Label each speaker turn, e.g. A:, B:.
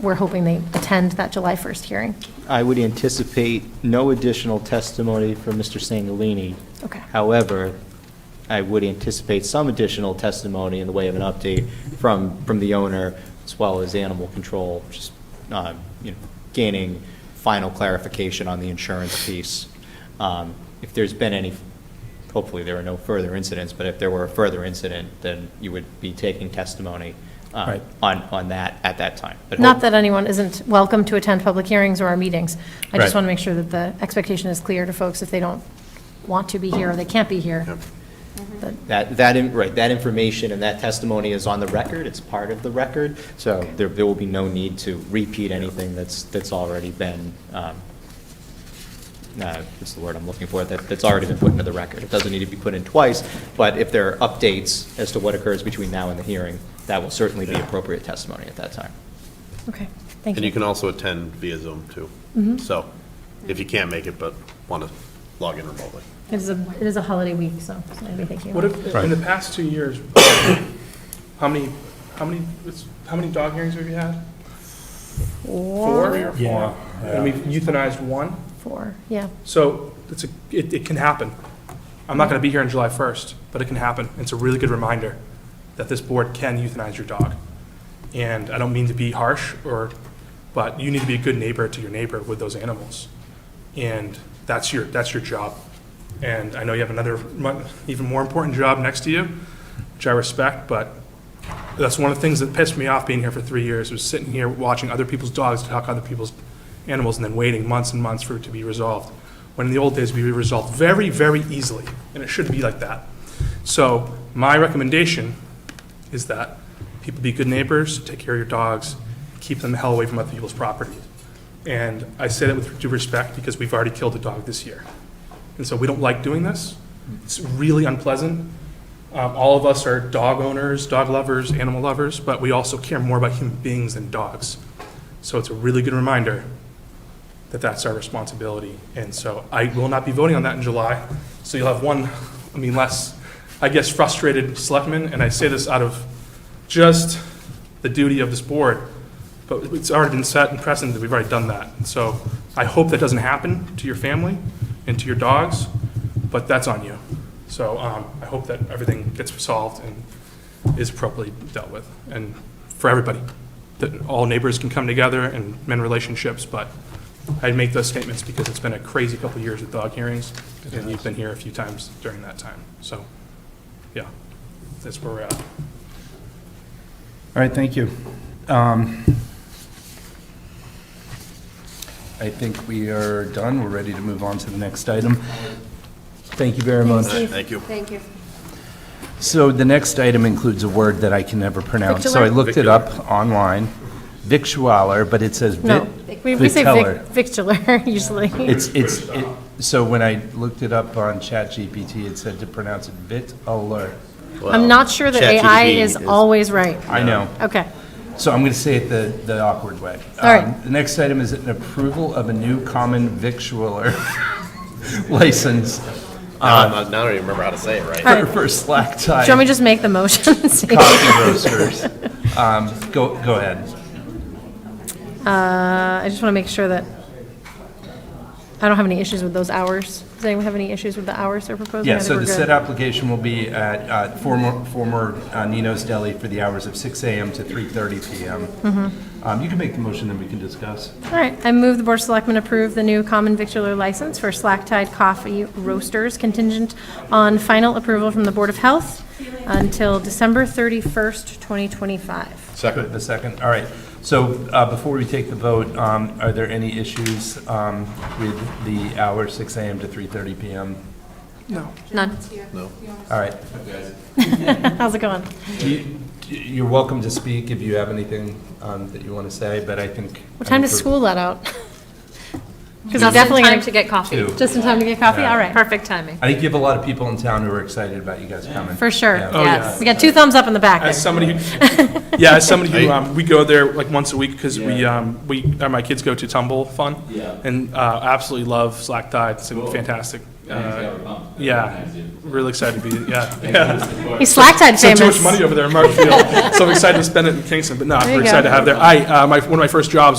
A: we're hoping they attend that July 1st hearing.
B: I would anticipate no additional testimony from Mr. Sangolini.
A: Okay.
B: However, I would anticipate some additional testimony in the way of an update from, from the owner, as well as animal control, just, um, you know, gaining final clarification on the insurance piece. Um, If there's been any, hopefully there are no further incidents, but if there were a further incident, then you would be taking testimony um,
C: Right.
B: on, on that, at that time. But
A: Not
B: hope-
A: that anyone isn't welcome to attend public hearings or our meetings. I just
C: Right.
A: want to make sure that the expectation is clear to folks if they don't want to be here or they can't be here. But
B: That, that, in- right, that information and that testimony is on the record, it's part of the record, so there, there will be no need to repeat anything that's, that's already been, um, uh, what's the word I'm looking for, that, that's already been put into the record. It doesn't need to be put in twice, but if there are updates as to what occurs between now and the hearing, that will certainly be appropriate testimony at that time.
A: Okay, thank
D: And you
A: you.
D: can also attend via Zoom, too. So, if you can't make it, but want to log in remotely.
A: It is a, it is a holiday week, so maybe thank you.
E: What if,
C: Right.
E: in the past two years, how many, how many, how many dog hearings have you had? Four?
C: Yeah,
E: And we've euthanized one,
A: Four, yeah.
E: so it's a, it, it can happen. I'm not gonna be here on July first, but it can happen. It's a really good reminder that this board can euthanize your dog. And I don't mean to be harsh or, but you need to be a good neighbor to your neighbor with those animals. And that's your, that's your job. And I know you have another, mu- even more important job next to you, which I respect, but that's one of the things that pissed me off being here for three years, was sitting here watching other people's dogs talk other people's animals and then waiting months and months for it to be resolved. When in the old days, we were resolved very, very easily, and it should be like that. So my recommendation is that people be good neighbors, take care of your dogs, keep them the hell away from other people's property. And I say that with due respect because we've already killed a dog this year. And so we don't like doing this. It's really unpleasant. Um, all of us are dog owners, dog lovers, animal lovers, but we also care more about human beings than dogs. So it's a really good reminder that that's our responsibility. And so I will not be voting on that in July. So you'll have one, I mean, less, I guess, frustrated selectman. And I say this out of just the duty of this board, but it's already been set and precedent that we've already done that. So I hope that doesn't happen to your family and to your dogs, but that's on you. So um, I hope that everything gets resolved and is properly dealt with, and for everybody, that all neighbors can come together and mend relationships, but I'd make those statements because it's been a crazy couple of years with dog hearings, and you've been here a few times during that time. So, yeah, that's where we're at.
C: All right, thank you. Um, I think we are done. We're ready to move on to the next item. Thank you very much.
D: Thank you.
F: Thank you.
C: So the next item includes a word that I can never pronounce. So I
A: Victualler?
C: looked it up online, victualler, but it says vit.
A: No, we we say
C: viteller.
A: vic- victular usually.
C: It's, it's, it- so when I looked it up on ChatGPT, it said to pronounce it viteller.
A: I'm not sure that AI
D: ChatGPT
A: is always right.
C: I know.
A: Okay,
C: So I'm going to say it the, the awkward way.
A: All right.
C: Um, The next item is an approval of a new common victualler license
D: Now I'm not- now I don't even remember how to say it right.
C: for for slack
A: do you want me to
C: tie
A: just make the motion? and see?
C: coffee roasters. Um, Go, go ahead.
A: Uh, I just want to make sure that I don't have any issues with those hours. Does anyone have any issues with the hours they're proposing? I
C: Yeah,
A: think
C: so
A: we're
C: the
A: good.
C: said application will be at uh, former, former uh, Nino's Deli for the hours of 6 AM to 3:30 PM.
A: Mm-hmm.
C: Um, You can make the motion, then we can discuss.
A: All right, I move the Board of Selectmen approve the new common victular license for Slack Tide Coffee Roasters contingent on final approval from the Board of Health until December 31st, 2025.
C: Second. The second, all right. So uh, before we take the vote, um, are there any issues um, with the hour, 6 AM to 3:30 PM?
A: None.
C: All right.
A: How's it going?
C: You- You're welcome to speak if you have anything um, that you want to say, but I think.
A: What time
C: I think
A: does
C: we're-
A: school let out? Because I'm
F: Just in
A: definitely
F: time
A: going
F: to get coffee.
C: Two.
A: Just in time to get coffee? All right,
F: Perfect timing.
C: I think you have a lot of people in town who are excited about you guys coming.
A: for sure.
C: Yeah.
F: Yes.
A: We got two thumbs up in the back.
E: As
A: there.
E: somebody who, yeah, as somebody who,
D: Hey.
E: um, we go there like once a week because we, um, we, uh, my kids go to Tumble Fun. Yeah. And, uh, absolutely love Slack Tide. It's fantastic. Uh, Yeah, really excited to be, yeah. yeah.
A: He's slack-tide
E: Spent
A: famous.
E: too much money over there in Marshfield, so I'm excited to spend it in Kingston, but no,
A: There you
E: we're excited to
A: go.
E: have there. I, uh, my, one of my first jobs